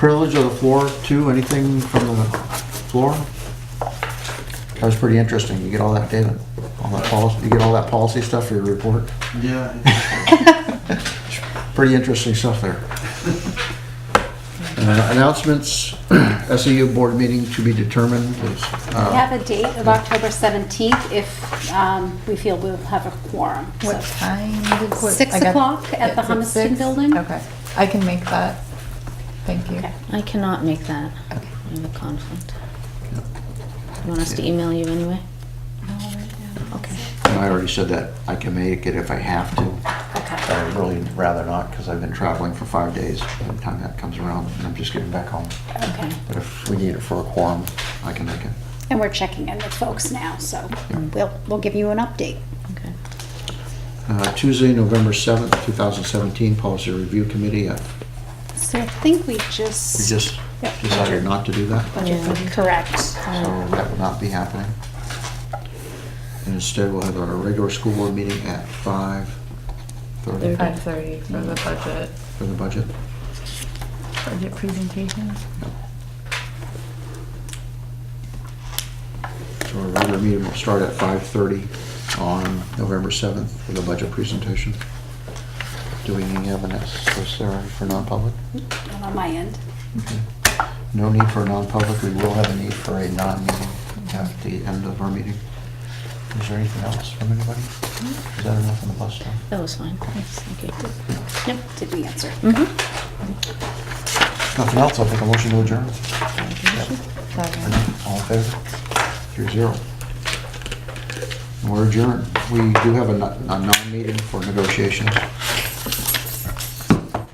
privilege of the floor too, anything from the floor? That was pretty interesting, you get all that data, all that policy, you get all that policy stuff for your report, Yeah. pretty interesting stuff there. Uh, Announcements, SEU board meeting to be determined is, We uh, have a date of October 17th if um, we feel we'll have a quorum. so. What time? did- what- Six I got- o'clock at the It's at Humiston six? Building. Okay, I can make that. Thank you. Okay. I cannot make that. Okay. I have a conflict. You want us to email you anyway? Okay. and I already said that, I can make it if I have to. Okay. I would really rather not, because I've been traveling for five days by the time that comes around, and I'm just getting back home. Okay. But if we need it for a quorum, I can make it. And we're checking in with folks now, so we'll, we'll give you an update. Okay. Uh, Tuesday, November 7th, 2017, Policy Review Committee, uh, So I think we we just. just Yep. decided not to do that, Yeah. Correct. Uh. so that will not be happening. And instead, we'll have our regular school board meeting at 5:30 Five thirty for the budget, for the budget. budget presentation. So our regular meeting will start at 5:30 on November 7th for the budget presentation. Do we need evidence necessary for non-public? And On my end. No need for a non-public, we will have a need for a non-meeting at the end of our meeting. Is there anything else from anybody? Is that enough on the bus stop? That was fine. Thank you. Did we answer? Mm-hmm. Nothing else, I'll take a motion to adjourn. Seven. All in favor? Three zero. We're adjourned. We do have a non- a non-meeting for negotiations.